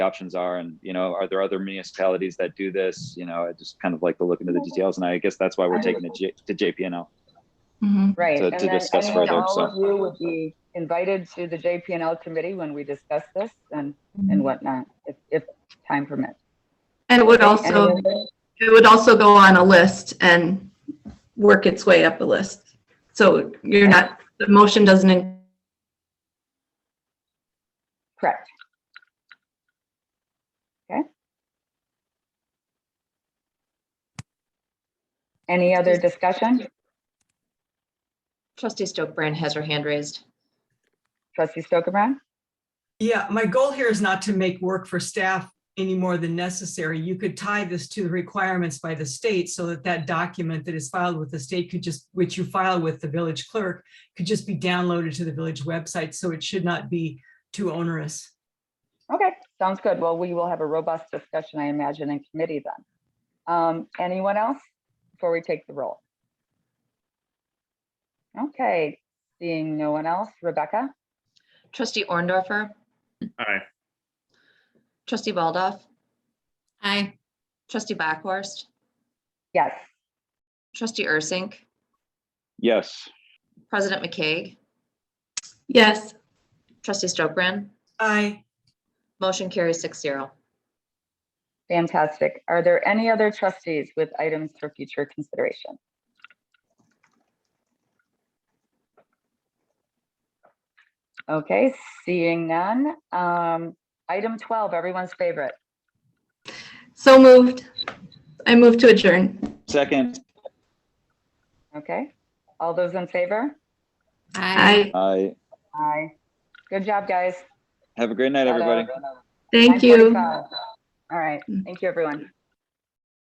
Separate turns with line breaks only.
options are and you know are there other municipalities that do this you know i just kind of like to look into the details and i guess that's why we're taking it J- to jpnl
Mhm.
Right.
to-
and
to
then-
discuss
and then
further,
All
so.
of you would be invited to the JPNL committee when we discuss this and, and whatnot, if, if time permits.
And it would
And
also,
then-
it would also go on a list and work its way up a list. So you're not, the motion doesn't, in-
Correct. Okay. Any other discussion?
Trustee Stokebrand has her hand raised.
Trustee Stoker Brown?
Yeah, my goal here is not to make work for staff any more than necessary. You could tie this to the requirements by the state so that that document that is filed with the state could just, which you file with the village clerk, could just be downloaded to the village website, so it should not be too onerous.
Okay, sounds good. Well, we will have a robust discussion, I imagine, in committee then. Um, anyone else before we take the roll? Okay, seeing no one else, Rebecca,
Trustee Orndorfer.
Aye.
Trustee Baldoff.
Aye.
Trustee Bachhorst.
yes,
Trustee Ursink.
yes
President McCaig.
yes,
Trustee Stokebrand.
Aye,
Motion carries six zero.
fantastic. Are there any other trustees with items for future consideration? Okay, seeing none. Um, item twelve, everyone's favorite.
so moved. I move to adjourn.
second
Okay, all those in favor?
Aye.
Aye,
i
Aye. Good job, guys.
have a great night everybody
thank you.
9:45. All right, thank you, everyone.